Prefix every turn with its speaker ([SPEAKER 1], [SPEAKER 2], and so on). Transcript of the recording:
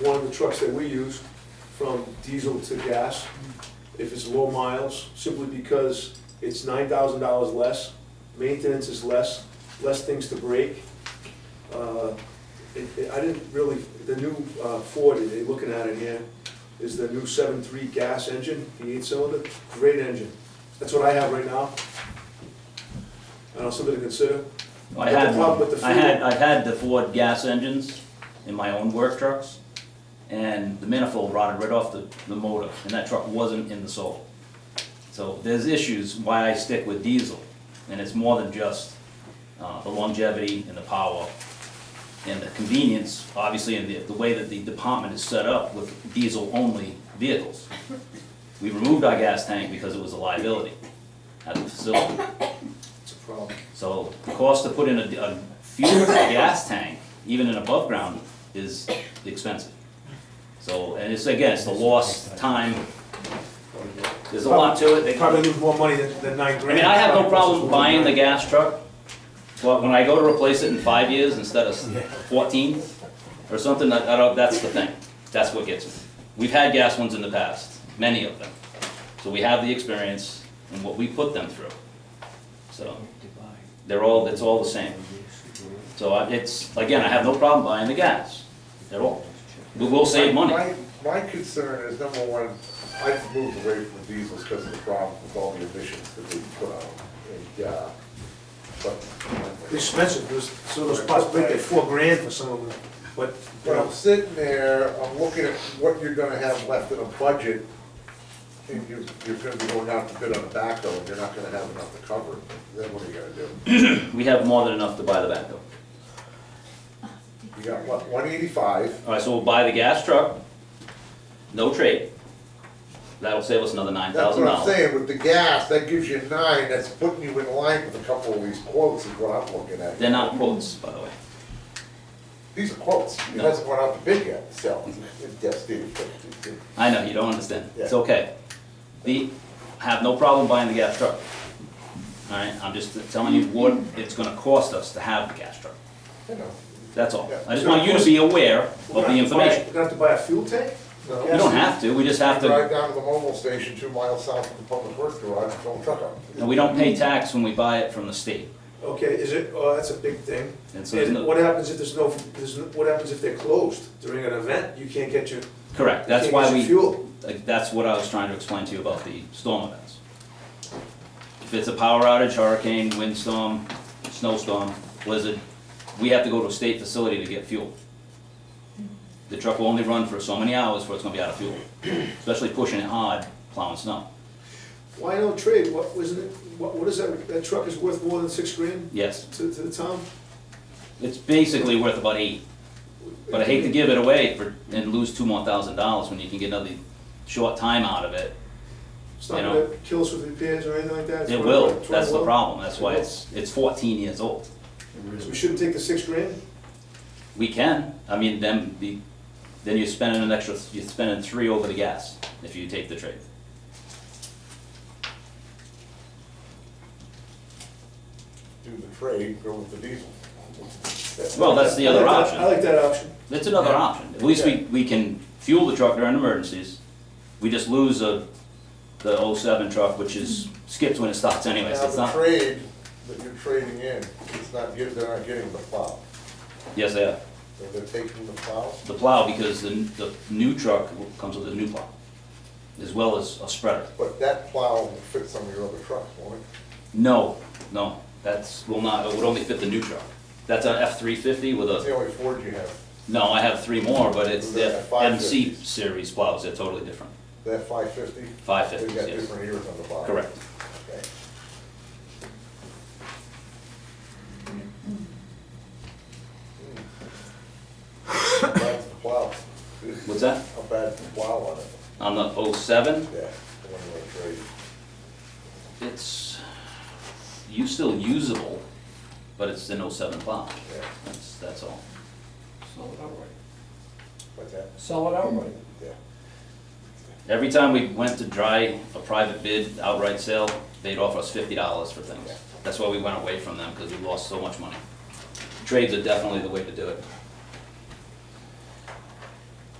[SPEAKER 1] one of the trucks that we use from diesel to gas, if it's low miles, simply because it's nine thousand dollars less, maintenance is less, less things to break. Uh, it- it- I didn't really, the new uh, Ford, they're looking at it here, is the new seven-three gas engine, the eight-cylinder, great engine. That's what I have right now. I don't know, something to consider.
[SPEAKER 2] I
[SPEAKER 1] But the
[SPEAKER 2] had
[SPEAKER 1] problem
[SPEAKER 2] one,
[SPEAKER 1] with the
[SPEAKER 2] I had,
[SPEAKER 1] fuel-
[SPEAKER 2] I've had the Ford gas engines in my own work trucks, and the manifold rotted right off the, the motor, and that truck wasn't in the soul. So there's issues why I stick with diesel, and it's more than just, uh, the longevity and the power and the convenience, obviously, and the, the way that the department is set up with diesel-only vehicles. We removed our gas tank because it was a liability at the facility.
[SPEAKER 1] It's a problem.
[SPEAKER 2] So the cost to put in a, a fuel gas tank, even in above ground, is expensive. So, and it's, again, it's the lost time. There's a lot to it. They-
[SPEAKER 1] Probably lose more money than, than nine
[SPEAKER 2] I
[SPEAKER 1] grand.
[SPEAKER 2] mean, I have no
[SPEAKER 1] Probably costs us
[SPEAKER 2] problem
[SPEAKER 1] more than
[SPEAKER 2] buying the
[SPEAKER 1] nine.
[SPEAKER 2] gas truck, but when I go to replace it in five years instead of fourteen or something, I, I don't, that's the thing. That's what gets me. We've had gas ones in the past, many of them. So we have the experience and what we put them through. So they're all, it's all the same. So I- it's, again, I have no problem buying the gas at all. We will save money.
[SPEAKER 3] My, my concern is, number one, I've moved away from diesels because of the problem with all the emissions that they put out. And, uh,
[SPEAKER 1] It's
[SPEAKER 3] but,
[SPEAKER 1] Expensive, there's, so those spots break at four grand for some of them, but, you
[SPEAKER 3] but I'm
[SPEAKER 1] know,
[SPEAKER 3] sitting there, I'm looking at what you're gonna have left in a budget, and you, you're gonna be going out to bid on a backhoe, and you're not gonna have enough to cover it. Then what are you gonna do?
[SPEAKER 2] We have more than enough to buy the backhoe.
[SPEAKER 3] You got, what, one eighty-five?
[SPEAKER 2] All right, so we'll buy the gas truck, no trade. That'll save us another nine
[SPEAKER 3] That's
[SPEAKER 2] thousand
[SPEAKER 3] what I'm
[SPEAKER 2] dollars.
[SPEAKER 3] saying, with the gas, that gives you nine, that's putting you in line with a couple of these quotes is what I'm looking at.
[SPEAKER 2] They're not quotes, by the way.
[SPEAKER 3] These are quotes, it
[SPEAKER 2] No.
[SPEAKER 3] hasn't gone out to bid yet, so, yes, Steve.
[SPEAKER 2] I know, you don't understand. It's
[SPEAKER 3] Yeah.
[SPEAKER 2] okay. The, I have no problem buying the gas truck. All right, I'm just telling you what it's gonna cost us to have the gas truck.
[SPEAKER 3] You know,
[SPEAKER 2] That's all.
[SPEAKER 3] Yeah.
[SPEAKER 2] I just want you to be aware of
[SPEAKER 1] we're
[SPEAKER 2] the
[SPEAKER 1] gonna have to buy-
[SPEAKER 2] information.
[SPEAKER 1] We're gonna have to buy a fuel tank?
[SPEAKER 3] No.
[SPEAKER 2] You don't have to, we just have to.
[SPEAKER 3] Drive down to the mobile station two miles south of the public works garage, and fill a truck up.
[SPEAKER 2] And we don't pay tax when we buy it from the state.
[SPEAKER 1] Okay, is it, oh, that's a big thing.
[SPEAKER 2] And so there's
[SPEAKER 1] And
[SPEAKER 2] no-
[SPEAKER 1] what happens if there's no, there's, no- what happens if they're closed during an event? You can't get your, you
[SPEAKER 2] Correct, that's
[SPEAKER 1] can't
[SPEAKER 2] why
[SPEAKER 1] get
[SPEAKER 2] we,
[SPEAKER 1] your fuel.
[SPEAKER 2] like, that's what I was trying to explain to you about the storm events. If it's a power outage, hurricane, windstorm, snowstorm, blizzard, we have to go to a state facility to get fuel. The truck will only run for so many hours before it's gonna be out of fuel, especially pushing it hard, plowing snow.
[SPEAKER 1] Why no trade? What, wasn't it, what, what is that, that truck is worth more than six grand
[SPEAKER 2] Yes,
[SPEAKER 1] to, to the town?
[SPEAKER 2] it's basically worth about eight, but I hate to give it away for, and lose two more thousand dollars when you can get another short time out of it
[SPEAKER 1] It's not
[SPEAKER 2] you know.
[SPEAKER 1] gonna kill us with repairs or anything like that? It's
[SPEAKER 2] It
[SPEAKER 1] gonna-
[SPEAKER 2] will,
[SPEAKER 1] it's gonna
[SPEAKER 2] that's the
[SPEAKER 1] work.
[SPEAKER 2] problem, that's why
[SPEAKER 1] It will.
[SPEAKER 2] it's, it's fourteen years old.
[SPEAKER 1] So we shouldn't take the six grand?
[SPEAKER 2] We can, I mean, then, the, then you're spending an extra, you're spending three over the gas if you take the trade.
[SPEAKER 3] Do the trade, go with the diesel.
[SPEAKER 2] Well, that's the
[SPEAKER 1] I
[SPEAKER 2] other
[SPEAKER 1] like that- I
[SPEAKER 2] option,
[SPEAKER 1] like that option.
[SPEAKER 2] that's another option, at least we, we can fuel the truck during emergencies. We just lose a, the oh seven truck, which is, skips when it starts anyways,
[SPEAKER 3] Now,
[SPEAKER 2] it's
[SPEAKER 3] the
[SPEAKER 2] not,
[SPEAKER 3] trade that you're trading in, it's not, get- they're not getting the plow.
[SPEAKER 2] yes, they are.
[SPEAKER 3] They're- They're taking the plow,
[SPEAKER 2] The plow, because the, the new truck comes with a new plow, as well as a spreader.
[SPEAKER 3] but that plow will fit some of your other trucks, won't it?
[SPEAKER 2] No, no, that's, will not, it would only fit the new truck. That's an F-350 with
[SPEAKER 3] That's the
[SPEAKER 2] a,
[SPEAKER 3] only Ford you have,
[SPEAKER 2] no, I have three more, but it's the
[SPEAKER 3] Those are
[SPEAKER 2] MC
[SPEAKER 3] 550s.
[SPEAKER 2] series plows, they're totally different.
[SPEAKER 3] that five fifty? They've
[SPEAKER 2] 550s,
[SPEAKER 3] got
[SPEAKER 2] yes.
[SPEAKER 3] different ears on the bottom.
[SPEAKER 2] Correct.
[SPEAKER 3] Okay. How bad's the plow?
[SPEAKER 2] What's that?
[SPEAKER 3] How bad's the plow on it?
[SPEAKER 2] On the 07,
[SPEAKER 3] Yeah, the one you want to trade.
[SPEAKER 2] it's, you still usable, but it's an 07 plow.
[SPEAKER 3] Yeah.
[SPEAKER 2] That's, that's all.
[SPEAKER 4] Sell it outright.
[SPEAKER 3] What's that?
[SPEAKER 4] Sell it outright.
[SPEAKER 3] Yeah.
[SPEAKER 2] Every time we went to dry a private bid outright sale, they'd offer us fifty dollars for things. That's why we went away from them, because we lost so much money. Trades are definitely the way to do it.